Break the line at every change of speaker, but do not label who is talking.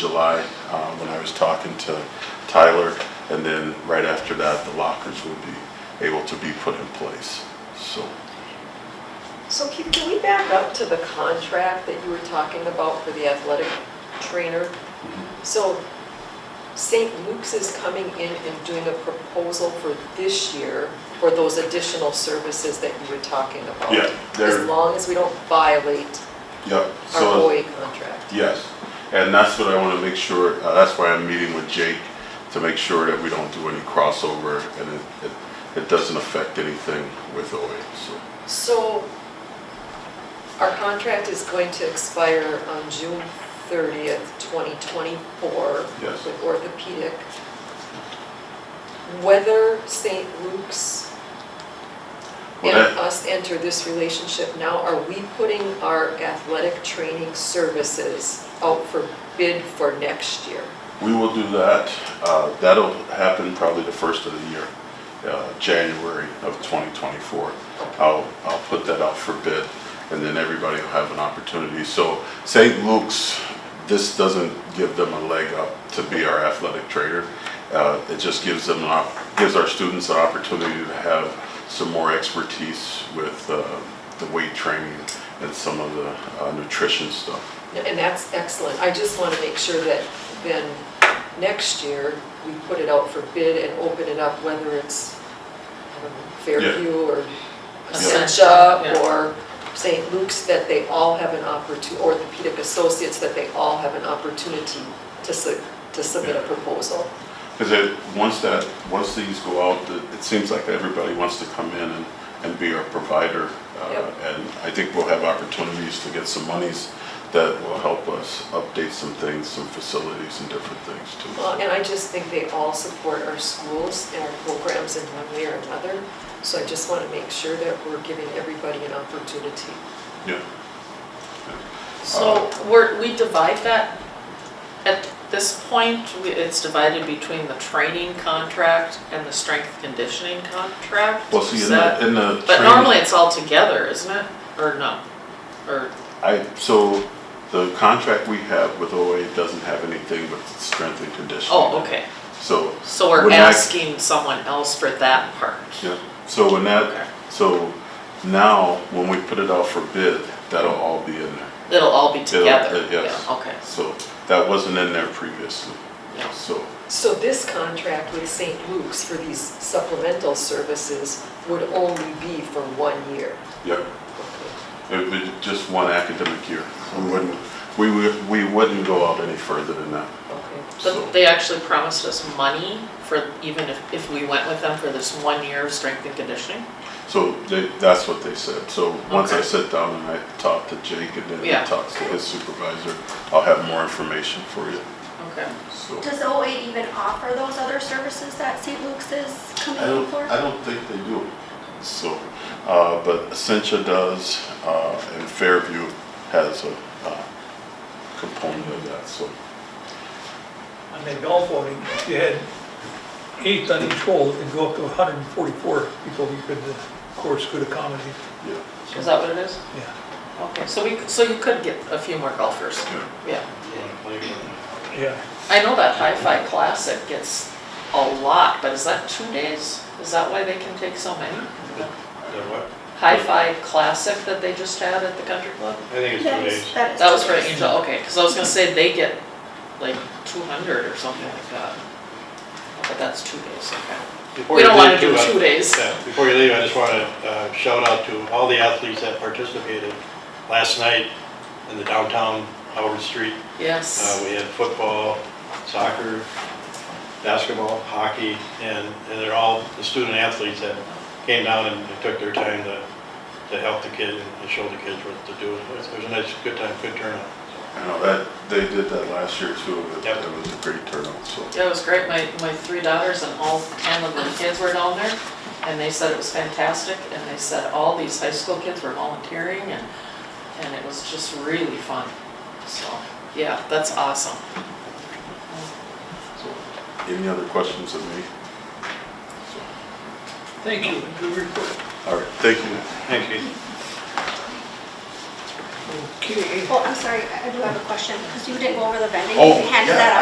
July, um, when I was talking to Tyler, and then right after that, the lockers would be able to be put in place, so.
So Keith, can we back up to the contract that you were talking about for the athletic trainer? So St. Luke's is coming in and doing a proposal for this year for those additional services that you were talking about?
Yeah, they're-
As long as we don't violate
um, Yep.
our
So.
OA contract.
Yes, and that's what I want to make sure, uh, that's why I'm meeting with Jake, to make sure that we don't do any crossover and it, it, it doesn't affect anything with OA, so.
So our contract is going to expire on June 30th, 2024.
Yes.
With orthopedic. Whether St. Luke's
Well, that-
and us enter this relationship now, are we putting our athletic training services out for bid for next year?
We will do that, uh, that'll happen probably the first of the year, uh, January of 2024. I'll, I'll put that out for bid, and then everybody will have an opportunity. So St. Luke's, this doesn't give them a leg up to be our athletic trader. Uh, It just gives them, an op- gives our students an opportunity to have some more expertise with uh, the weight training and some of the uh, nutrition stuff.
And that's excellent. I just want to make sure that then next year, we put it out for bid and open it up, whether it's I don't know, Fairview or Essentia
Yeah.
or St. Luke's, that they all have an opportunity, orthopedic associates, that they all have an opportunity to su- to submit a
Yeah.
proposal.
Because it, once that, once these go out, it it seems like everybody wants to come in and, and be our provider. uh,
Yep.
And I think we'll have opportunities to get some monies that will help us update some things, some facilities and different things
Well,
too.
and I just think they all support our schools and our programs in one way or another. So I just want to make sure that we're giving everybody an opportunity.
Yeah.
So we're, we divide that, at this point, we- it's divided between the training contract and the strength conditioning contract?
Well, see,
Is
in the,
that-
in the.
But
training-
normally it's all together, isn't it? Or no? Or,
I, so the contract we have with OA doesn't have anything with strength and conditioning.
oh, okay.
So.
So we're
when I-
asking someone else for that part?
Yeah, so when
Okay.
that, so now, when we put it out for bid, that'll all be in there.
It'll all be
It'll-
together?
uh, Yes.
Yeah, Okay.
So that wasn't in there previously,
Yeah.
so,
So this contract with St. Luke's for these supplemental services would only be for one year.
yeah,
Okay.
it would be just one academic year. We wouldn't, we would, we wouldn't go out any further than that, so.
But they actually promised us money for, even if, if we went with them for this one year of strength and conditioning?
So they, that's what they said. So once I
Okay.
sit down and I talk to Jake and then he
Yeah.
talks to his supervisor, I'll have more information for you,
Okay.
so.
Does OA even offer those other services that St. Luke's is coming
I
in
don't,
for?
I don't think they do. So, uh, but Essentia does, uh, and Fairview has a, uh, component of that, so.
on that golf outing, if you had eight on each hole, it'd go up to 144 people you could, the course could accommodate,
Yeah.
Is that what it is?
yeah.
Okay, so we, so you could get a few more golfers,
Yeah.
yeah.
Yeah,
I know that Hi-Fi Classic gets a lot, but is that two days? Is that why they can take so many? Hi-Fi Classic that they just had at the country club?
I think it's two
That is-
days.
that is
That was for
different.
Angel, okay, because I was gonna say they get like two hundred or something like that. But that's two days, okay.
Before
We
you
don't wanna
leave,
do
too, I-
two days.
yeah, Before you leave, I just want to shout out to all the athletes that participated last night in the downtown Howard Street. Uh,
Yes,
We had football, soccer, basketball, hockey, and and they're all the student athletes that came down and took their time to, to help the kids and show the kids what to do. It was- It was a nice, good time, good turnout.
I know that, they did that last year too, but
Yep.
that was a great turnout, so.
yeah, it was great, my, my three daughters and all ten of the kids were down there, and they said it was fantastic, and they said all these high school kids were volunteering, and, and it was just really fun, so, yeah, that's awesome.
so. Any other questions of me? So,
thank you, good report.
All right, thank you.
Thanks, Keith.
Okay.
Well, I'm sorry, I I do have a question, because you didn't go over the vending,
Oh,
they handed
yeah.
that out.